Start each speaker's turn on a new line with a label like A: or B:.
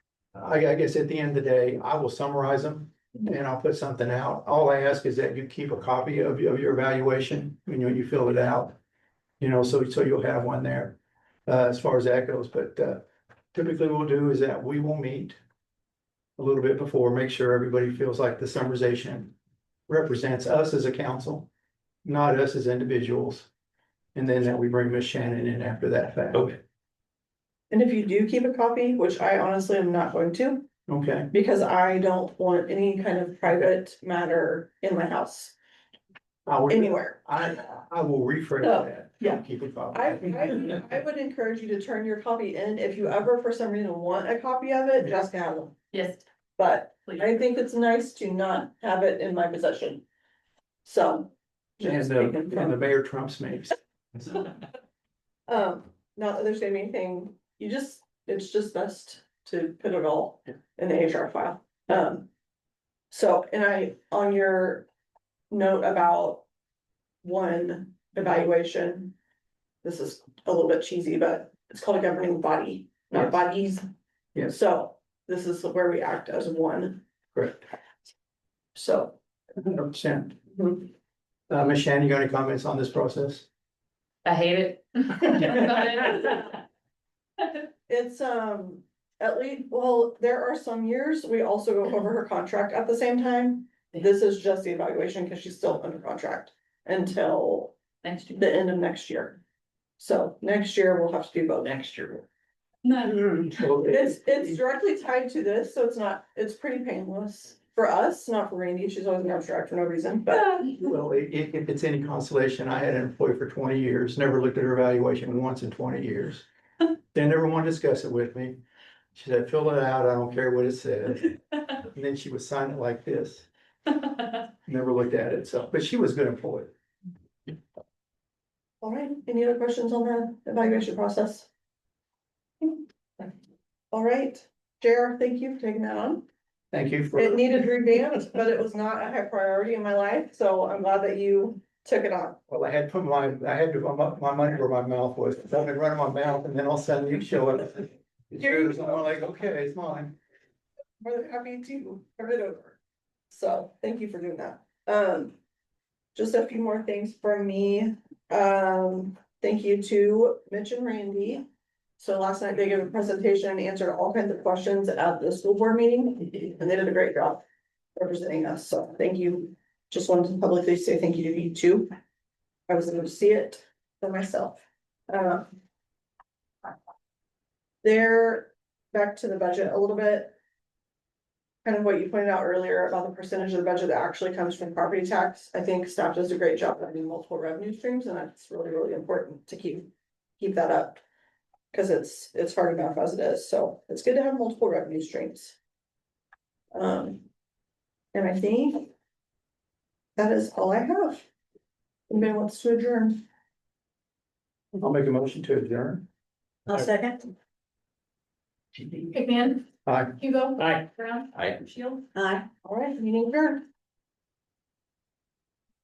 A: I, I guess at the end of the day, I will summarize them and I'll put something out. All I ask is that you keep a copy of, your- of your evaluation, you know, you fill it out. You know, so, so you'll have one there, uh, as far as that goes, but, uh, typically what we'll do is that we will meet a little bit before, make sure everybody feels like the summarization represents us as a council, not us as individuals. And then that we bring Miss Shannon in after that fact.
B: Okay.
C: And if you do keep a copy, which I honestly am not going to,
A: Okay,
C: because I don't want any kind of private matter in my house
A: I would,
C: anywhere.
A: I, I will rephrase
C: Oh,
A: that.
C: yeah.
A: Keep it.
C: I, I, I would encourage you to turn your copy in. If you ever for some reason want a copy of it, just have one.
D: Yes,
C: But I
D: please.
C: think it's nice to not have it in my possession. So.
A: And
C: just
A: the,
C: speaking from-
A: and the mayor trumps me.
C: Um, not that there's gonna be anything, you just, it's just best to put it all in the HR file. Um. So, and I, on your note about one evaluation. This is a little bit cheesy, but it's called a governing body, not
A: Yes.
C: bodies.
A: Yes.
C: So this is where we act as one,
A: Correct,
C: so.
A: hundred percent.
C: Mm-hmm.
A: Uh, Ms. Shannon, you got any comments on this process?
D: I hate it. But-
C: It's um, at least, well, there are some years, we also go over her contract at the same time. This is just the evaluation because she's still under contract until
D: Next year.
C: the end of next year. So next year we'll have to do both. Next year.
D: No,
C: Mm-hmm.
A: Well,
C: It's, it's directly tied to this, so it's not, it's pretty painless for us, not for Randy. She's always in abstract for no reason, but
A: Well, i- i- if it's any consolation, I had an employee for twenty years, never looked at her evaluation once in twenty years. They never wanted to discuss it with me. She said, fill it out, I don't care what it said. And then she would sign it like this, never looked at it, so, but she was a good employee.
C: all right, any other questions on the evaluation process? All right, JR, thank you for taking that on.
A: Thank you for.
C: It needed revamped, but it was not a high priority in my life, so I'm glad that you took it on.
A: Well, I had put my, I had to, my, my money where my mouth was, I've been running my mouth and then all of a sudden you show up. You're like, okay, it's mine.
C: More than happy to turn it over. So, thank you for doing that. Um, just a few more things from me. Um, thank you to Mitch and Randy. So last night they gave a presentation and answered all kinds of questions at the school board meeting, and they did a great job representing us, so thank you. Just wanted to publicly say thank you to you too. I was able to see it for myself. Um, There, back to the budget a little bit kind of what you pointed out earlier about the percentage of the budget that actually comes from property tax, I think staff does a great job of having multiple revenue streams, and that's really, really important to keep, keep that up. Cause it's, it's hard enough as it is, so it's good to have multiple revenue streams. Um, and I think that is all I have. Anybody wants to adjourn?
A: I'll make a motion to adjourn.
C: I'll second.
D: McMahon,
A: Aye.
D: Hugo.
B: Aye.
D: Brown.
B: Aye.
D: Shield.
C: Aye. All right, meeting adjourned.